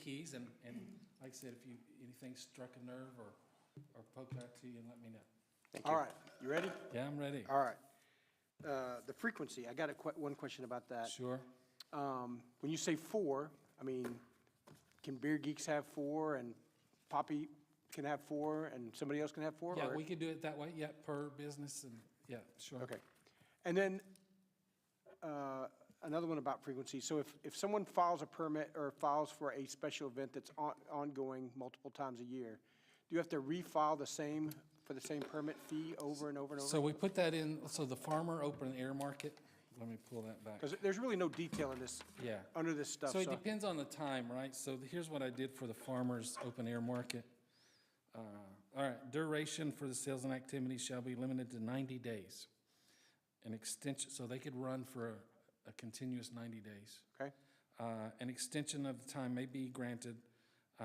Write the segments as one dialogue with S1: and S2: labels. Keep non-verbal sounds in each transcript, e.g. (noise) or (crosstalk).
S1: keys, and, and like I said, if you, anything struck a nerve or, or poked out to you, and let me know.
S2: Thank
S3: All
S2: you.
S3: right, you ready?
S1: Yeah, I'm ready.
S3: All right. Uh, The frequency, I got a, que- one question about that.
S1: Sure.
S3: Um, When you say four, I mean, can Beer Geeks have four, and Poppy can have four, and somebody else can have four?
S1: Yeah,
S3: or-
S1: we could do it that way, yeah, per business, and, yeah, sure.
S3: Okay. And then uh, another one about frequency. So if, if someone files a permit or files for a special event that's on- ongoing multiple times a year, do you have to refile the same, for the same permit fee over and over and over?
S1: So we put that in, so the farmer open air market, let me pull that back.
S3: Because there's really no detail in this,
S1: Yeah.
S3: under this stuff.
S1: So it depends on the time, right? So the- here's what I did for the farmer's open air market. Uh, All right, duration for the sales and activities shall be limited to 90 days. An extension, so they could run for a- a continuous 90 days.
S3: Okay,
S1: Uh, An extension of the time may be granted, uh,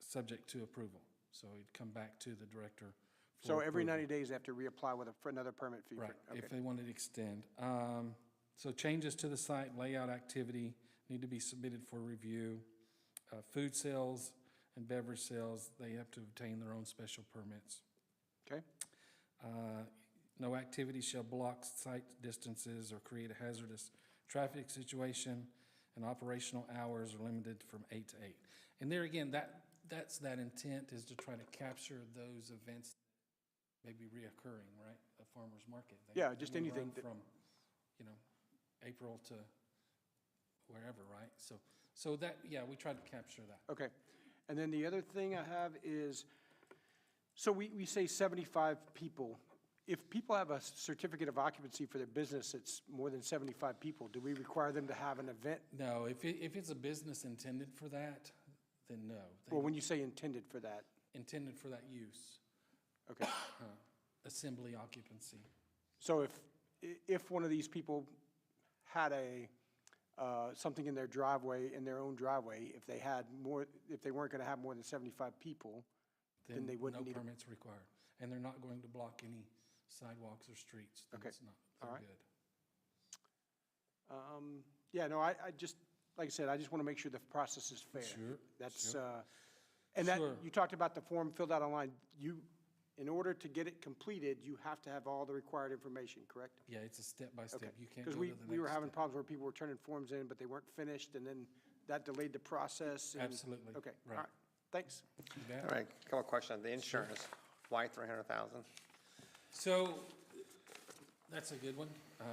S1: subject to approval. So it'd come back to the director. for
S3: so every
S1: approval.
S3: 90 days, they have to reapply with a- for another permit fee? for-
S1: Right,
S3: okay.
S1: if they wanted to extend. Um, So changes to the site layout activity need to be submitted for review. Uh, Food sales and beverage sales, they have to obtain their own special permits.
S3: Okay,
S1: Uh, No activity shall block site distances or create a hazardous traffic situation, and operational hours are limited from eight to eight. And there again, that, that's that intent is to try to capture those events maybe reoccurring, right? A farmer's market. They-
S3: Yeah, just
S1: they may
S3: anything
S1: run
S3: that-
S1: From, you know, April to wherever, right? So, so that, yeah, we tried to capture that.
S3: okay. And then the other thing I have is, so we, we say 75 people. If people have a certificate of occupancy for their business, it's more than 75 people. Do we require them to have an event?
S1: No, if it, if it's a business intended for that, then no. They-
S3: Well, when you say intended for that,
S1: Intended for that use.
S3: okay.
S1: assembly occupancy.
S3: So if, i- if one of these people had a, uh, something in their driveway, in their own driveway, if they had more, if they weren't going to have more than 75 people, then they wouldn't need,
S1: No
S3: a-
S1: permits required. And they're not going to block any sidewalks or streets. Then
S3: Okay.
S1: it's not,
S3: All
S1: they're
S3: right.
S1: good.
S3: um, yeah, no, I, I just, like I said, I just want to make sure the process is fair.
S1: Sure,
S3: That's,
S1: sure.
S3: uh, and that,
S1: Sure.
S3: you talked about the form filled out online. You, in order to get it completed, you have to have all the required information, correct?
S1: Yeah, it's a step by
S3: Okay,
S1: step. You can't go
S3: because
S1: to
S3: we,
S1: the next
S3: we were having
S1: step.
S3: problems where people were turning forms in, but they weren't finished, and then that delayed the process. and-
S1: Absolutely,
S3: Okay, all
S1: right.
S3: right, thanks.
S1: You bet.
S2: All right, couple of questions. The insurance, why 300,000?
S1: So, that's a good one. Uh,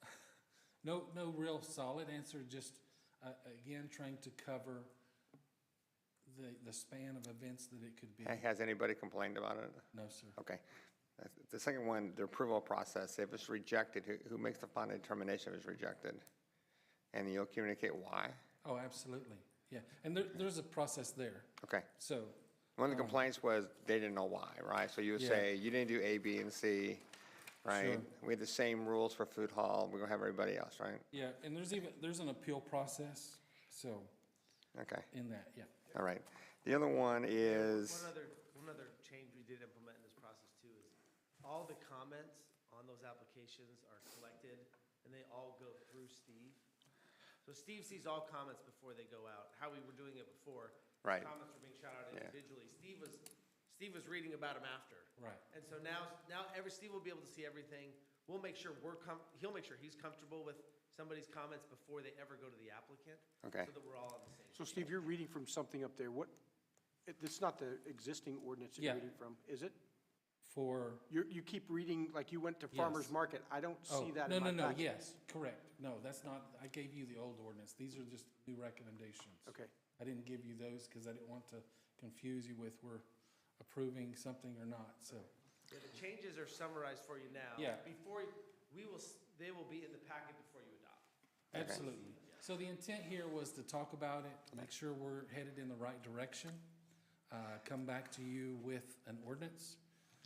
S1: (laughs) No, no real solid answer, just, uh, again, trying to cover the, the span of events that it could be.
S2: Has anybody complained about it?
S1: No, sir.
S2: Okay. That's- The second one, the approval process, if it's rejected, who, who makes the final determination if it's rejected? And you'll communicate why?
S1: Oh, absolutely, yeah. And there, there's a process there.
S2: Okay.
S1: So,
S2: One of the complaints was they didn't know why, right? So you would
S1: Yeah.
S2: say, you didn't do A, B, and C, right? We had the same rules for food hall, we're gonna have everybody else, right?
S1: yeah, and there's even, there's an appeal process, so,
S2: Okay,
S1: in that, yeah.
S2: all right. The other one is,
S4: One other, one other change we did implement in this process too is all the comments on those applications are collected and they all go through Steve. So Steve sees all comments before they go out, how we were doing it before.
S2: Right.
S4: Comments were being shot out
S2: Yeah.
S4: individually. Steve was, Steve was reading about them after.
S1: Right.
S4: And so now, now every, Steve will be able to see everything. We'll make sure we're com, he'll make sure he's comfortable with somebody's comments before they ever go to the applicant.
S2: Okay.
S4: So that we're all on the same.
S3: So Steve, you're reading from something up there. What, it- it's not the existing ordinance that
S1: Yeah.
S3: you're reading from, is it?
S1: For,
S3: You, you keep reading, like you went to farmer's
S1: Yes.
S3: market. I don't
S1: oh,
S3: see that
S1: no,
S3: in my
S1: no,
S3: packet.
S1: no, yes, correct. No, that's not, I gave you the old ordinance. These are just new recommendations.
S3: Okay.
S1: I didn't give you those because I didn't want to confuse you with we're approving something or not, so.
S4: Yeah, the changes are summarized for you now.
S1: Yeah.
S4: Before, you- we will, s- they will be in the packet before you adopt.
S1: Absolutely. So the intent here was to talk about it, make sure we're headed in the right direction, uh, come back to you with an ordinance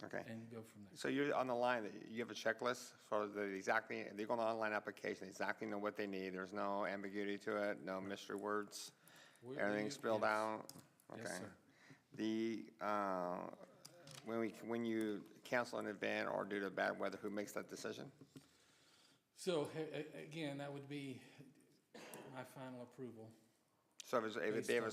S2: okay.
S1: and go from there.
S2: So you're on the line, you have a checklist for the exactly, they go on the online application, exactly know what they need. There's no ambiguity to it, no mystery words.
S1: We- we-
S2: Everything's spelled
S1: yes.
S2: out?
S1: Yes,
S2: Okay.
S1: sir.
S2: The, uh, when we, when you cancel an event or due to bad weather, who makes that decision?
S1: So, a- a- again, that would be my final approval.
S2: So if it's- if
S1: Based
S2: they have a
S1: on-